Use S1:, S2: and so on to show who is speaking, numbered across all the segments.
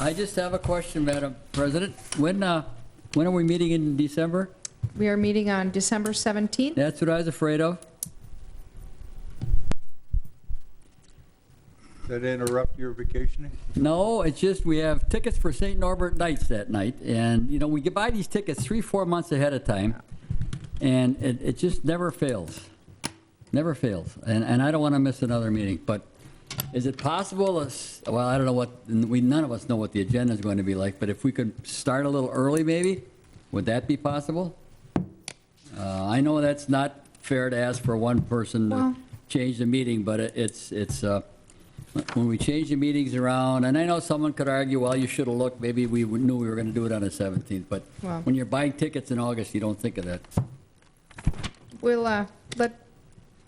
S1: I just have a question, Madam President. When, uh, when are we meeting in December?
S2: We are meeting on December 17th.
S1: That's what I was afraid of.
S3: That interrupt your vacationing?
S1: No, it's just we have tickets for St. Norbert Nights that night, and, you know, we buy these tickets three, four months ahead of time, and it, it just never fails. Never fails, and, and I don't want to miss another meeting, but is it possible, us- well, I don't know what, we, none of us know what the agenda is going to be like, but if we could start a little early maybe, would that be possible? Uh, I know that's not fair to ask for one person to
S2: Well-
S1: change the meeting, but it- it's, it's, uh, when we change the meetings around, and I know someone could argue, well, you should have looked, maybe we knew we were going to do it on the 17th, but
S2: Well-
S1: when you're buying tickets in August, you don't think of that.
S2: We'll uh, let,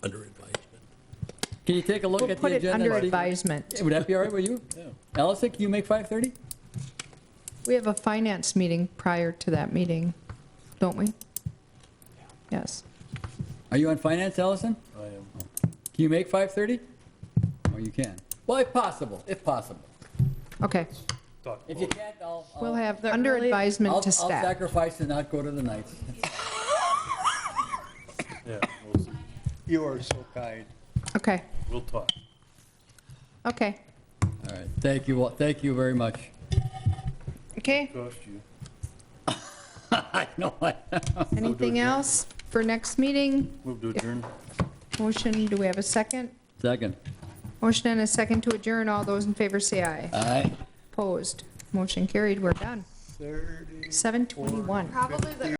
S4: Under advisement.
S1: Can you take a look
S2: we'll
S1: at the
S2: put it
S1: agenda?
S2: under
S1: and see-
S2: advisement.
S1: Would that be all right with you? Allison, can you make 5:30?
S2: We have a finance meeting prior to that meeting, don't we? Yes.
S1: Are you on finance, Allison?
S4: I am.
S1: Can you make 5:30? Oh, you can. Well, if possible, if possible.
S2: Okay.
S1: If you can't, I'll, I'll-
S2: We'll have under
S5: early-
S2: advisement
S1: I'll
S2: to
S1: I'll
S2: staff.
S1: sacrifice and not go to the nights.
S4: Yeah, we'll,
S3: You are so kind.
S2: Okay,
S4: we'll talk.
S2: okay,
S1: All right, thank you, all- thank you very much.
S2: okay.
S4: Cost you.
S1: I know, I-
S2: Anything else for next meeting?
S4: Move to adjourn.
S2: Motion, do we have a second?
S1: second.
S2: Motion and a second to adjourn. All those in favor say aye.
S1: All right.
S2: Opposed? Motion carried. We're done.
S3: Thirty.
S2: 7:21.
S5: Probably the